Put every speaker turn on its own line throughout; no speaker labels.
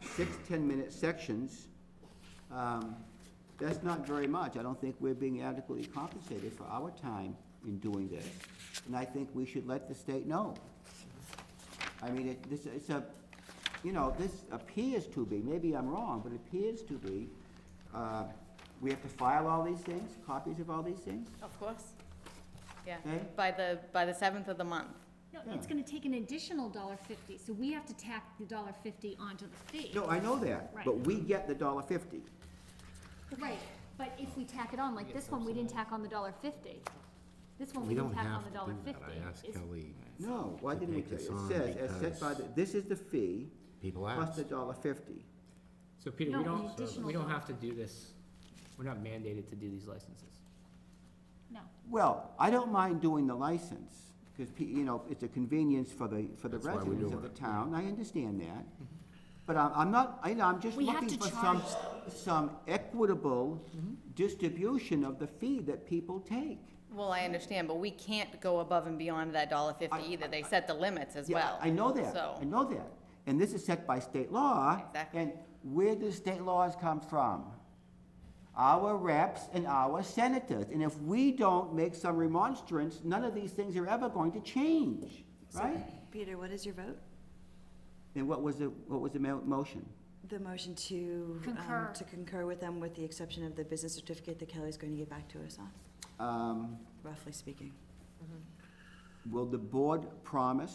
six 10-minute sections, um, that's not very much. I don't think we're being adequately compensated for our time in doing this. And I think we should let the state know. I mean, it, this, it's a, you know, this appears to be, maybe I'm wrong, but it appears to be, uh, we have to file all these things, copies of all these things?
Of course. Yeah,
Okay.
by the, by the seventh of the month.
No, it's
Yeah.
gonna take an additional dollar fifty, so we have to tack the dollar fifty onto the fee.
No, I know that, but
Right.
we get the dollar fifty.
Right, but if we tack it on, like this one, we didn't tack on the dollar fifty. This one,
We
we didn't
don't
tack on
have
the
to
dollar
do that.
fifty.
I asked
It's-
Kelly,
No, why
To
didn't we
take
tell
this
you?
on
It says, as set by, the this is the fee,
people
plus
asked.
the dollar fifty.
So Peter,
No,
we
an
don't,
additional
we don't
dollar.
have to do this, we're not mandated to do these licenses.
No,
Well, I don't mind doing the license, because, you know, it's a convenience for the, for the
That's why we're
residents of
doing
the
it.
town, I understand that. But I'm, I'm not, I, I'm just
We have
looking
to
for some, some equitable
Mm-hmm.
distribution of the fee that people take.
Well, I understand, but we can't go above and beyond that dollar fifty either. They set the limits as
Yeah,
well.
I know that, I
So,
know that. And this is set by state law.
Exactly.
And where do state laws come from? Our reps and our senators. And if we don't make some remonstrance, none of these things are ever going to change, right?
Peter, what is your vote?
And what was the, what was the mo- motion?
The motion to. um,
Concur.
To concur with them with the exception of the business certificate that Kelly's going to get back to us on,
Um,
roughly speaking.
Will the board promise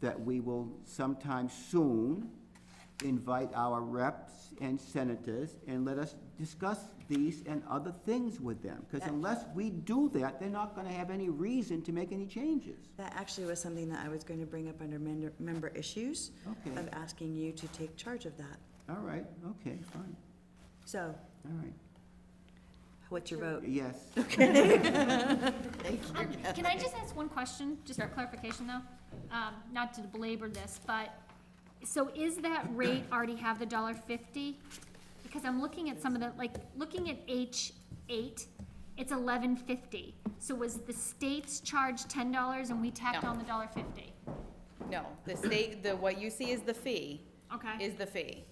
that we will sometime soon invite our reps and senators and let us discuss these and other things with them? Because unless we do that, they're not gonna have any reason to make any changes.
That actually was something that I was going to bring up under member, member issues.
Okay.
Of asking you to take charge of that.
All right, okay, fine,
So,
all right.
what's your vote?
Yes,
Um, Can I just ask one question, just for clarification though? Um, not to belabor this, but, so is that rate already have the dollar fifty? Because I'm looking at some of the, like, looking at H eight, it's eleven fifty. So was the state's charge ten dollars and we tacked
No.
on the dollar fifty?
no, the state, the, what you see is the fee,
Okay,
is the fee.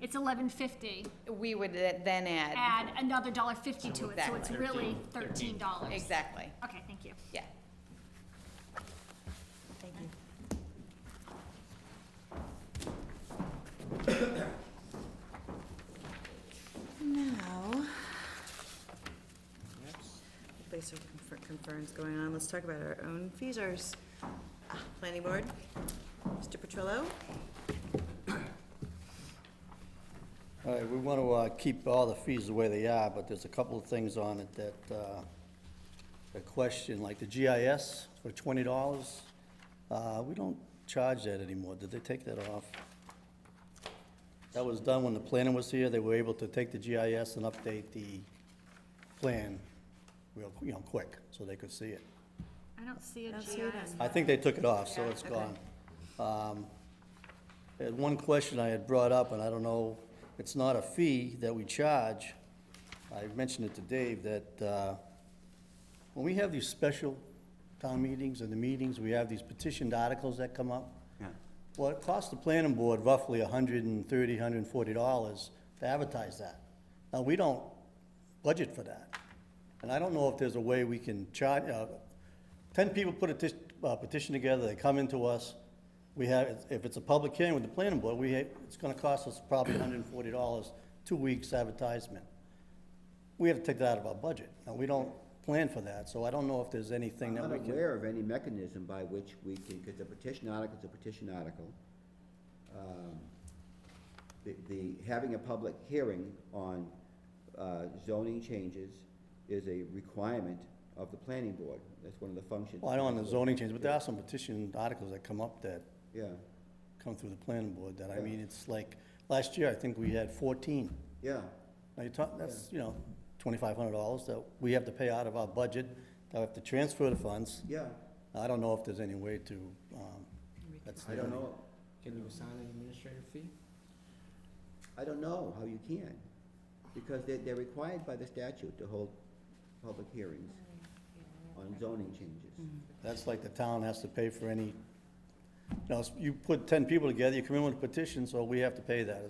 it's eleven fifty,
We would then add,
add another dollar fifty to it, so it's
Exactly.
really thirteen dollars.
exactly,
Okay, thank you.
yeah.
Thank you. Now, place of confer- conference going on, let's talk about our own fees, ours. Ah, Planning board, Mr. Petrillo?
All right, we want to uh, keep all the fees the way they are, but there's a couple of things on it that, uh, a question, like the GIS for twenty dollars. Uh, We don't charge that anymore. Did they take that off? That was done when the planner was here. They were able to take the GIS and update the plan real, you know, quick, so they could see it.
I don't see a
Don't see it on-
I think they took it off, so it's gone. Um, I had one question I had brought up, and I don't know, it's not a fee that we charge. I mentioned it to Dave, that uh, when we have these special town meetings and the meetings, we have these petitioned articles that come up.
yeah,
Well, it costs the planning board roughly hundred and thirty, hundred and forty dollars to advertise that. Now, we don't budget for that. And I don't know if there's a way we can charge, uh, ten people put a tis- uh, petition together, they come into us. We have, if it's a public hearing with the planning board, we, ha- it's gonna cost us probably hundred and forty dollars, two weeks advertisement. We have to take that out of our budget. Now, we don't plan for that, so I don't know if there's anything
I'm
that
not
we can.
aware of any mechanism by which we can, because a petition article is a petition article. Um, The, the, having a public hearing on uh, zoning changes is a requirement of the planning board. That's one of the functions.
Well, I don't know the zoning change, but there are some petition articles that come up that
Yeah,
come through the planning board that, I mean, it's like, last year, I think we had fourteen.
yeah,
Now, you're talking, that's, you know, twenty-five hundred dollars that we have to pay out of our budget, that we have to transfer the funds.
yeah.
I don't know if there's any way to, um, that's
I
the
don't
only.
know,
Can you assign an administrative fee?
I don't know how you can, because they're, they're required by the statute to hold public hearings on zoning changes.
That's like the town has to pay for any, you know, you put ten people together, you come in with a petition, so we have to pay that